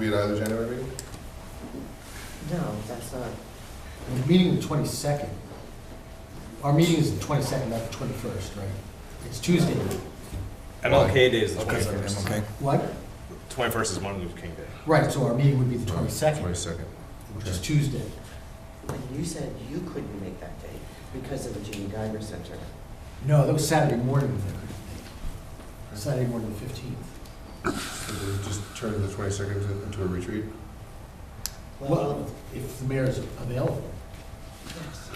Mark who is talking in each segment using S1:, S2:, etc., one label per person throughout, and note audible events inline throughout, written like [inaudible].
S1: Be at either January meeting?
S2: No, that's not,
S3: The meeting the twenty-second. Our meeting is the twenty-second, not the twenty-first, right? It's Tuesday.
S4: MLK Day is the
S1: Okay, so
S4: 21st.
S1: MLK.
S3: What?
S4: 21st is Martin Luther King Day.
S3: Right, so our meeting would be the twenty-second,
S1: Twenty-second.
S3: which is Tuesday.
S2: and you said you couldn't make that day because of the Gene Geiger Center.
S3: No, that was Saturday morning. Saturday morning, the fifteenth.
S1: Just turn the twenty-second into a retreat?
S3: Well, if the mayor is available.
S2: Yes,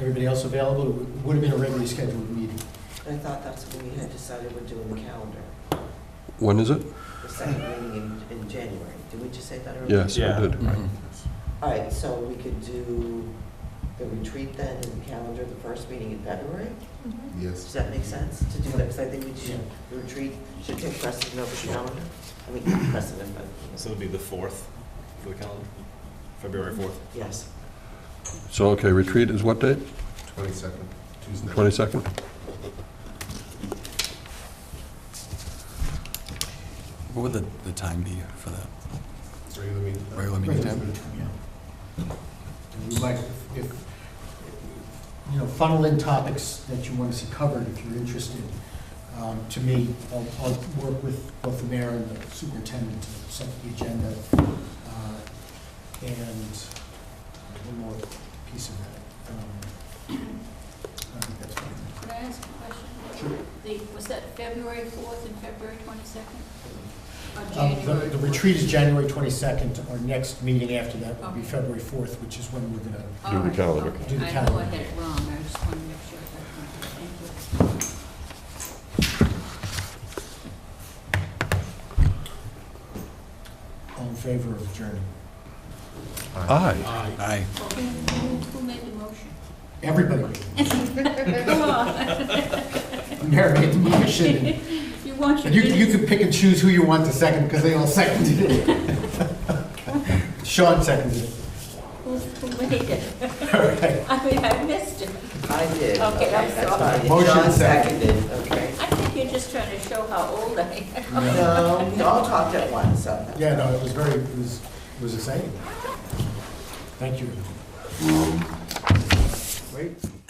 S3: Everybody else available, it would have been a regularly scheduled meeting.
S2: I thought that's what we had decided we're doing the calendar,
S5: When is it?
S2: the second meeting in, in January. Did we just say that earlier?
S5: Yes, I
S4: Yeah.
S5: did.
S2: All right, so we could do the retreat then and the calendar, the first meeting in February? Does
S1: Yes.
S2: that make sense to do that? Because I think we should, the retreat should take precedent over the calendar. I mean, not precedent, but,
S4: So it'll be the 4th for the calendar, February 4th.
S2: yes.
S5: So, okay, retreat is what date?
S1: Twenty-second, Tuesday.
S5: 22nd?
S6: What would the, the time be for that?
S1: Regular meeting.
S6: Regular meeting time?
S3: Yeah. And we might, if, you know, funnel in topics that you want to see covered if you're interested. Um, To me, I'll, I'll work with both the mayor and the superintendent to set the agenda. uh, And uh, one more piece of that. Um, I think that's fine.
S7: Could I ask a question? The, was that February 4th and February 22nd? Or
S3: Um,
S7: January?
S3: the- The retreat is January 22nd. Our next meeting after that will be
S7: Okay.
S3: February 4th, which is when we're going to
S7: All
S5: Do the
S7: right,
S5: calendar.
S7: okay.
S3: Do the
S7: I know I
S3: calendar.
S7: had it wrong, I just wanted to make sure. Thank you.
S3: All in favor of adjourning?
S5: Aye.
S6: Aye.
S7: Well, Who who made the
S3: [laughs]
S7: motion?
S3: Everybody,
S7: Come on.
S3: Mayor made the [laughs] motion.
S7: [laughs] You want your...
S3: And you, can- you
S7: minutes.
S3: can pick and choose who you want to second, because they all [laughs] seconded it. Sean seconded it.
S7: Who who made it?
S3: [laughs] All right.
S7: [laughs] I mean, I missed it.
S2: I did.
S7: Okay, I'm
S2: that's
S7: sorry.
S2: fine.
S3: Motion
S2: John
S3: second.
S2: seconded, okay.
S7: I think you're just trying to show how old I am.
S2: No, we all talked at once, so.
S3: Yeah, no, it was very, it was, it was exciting. Thank you. Wait.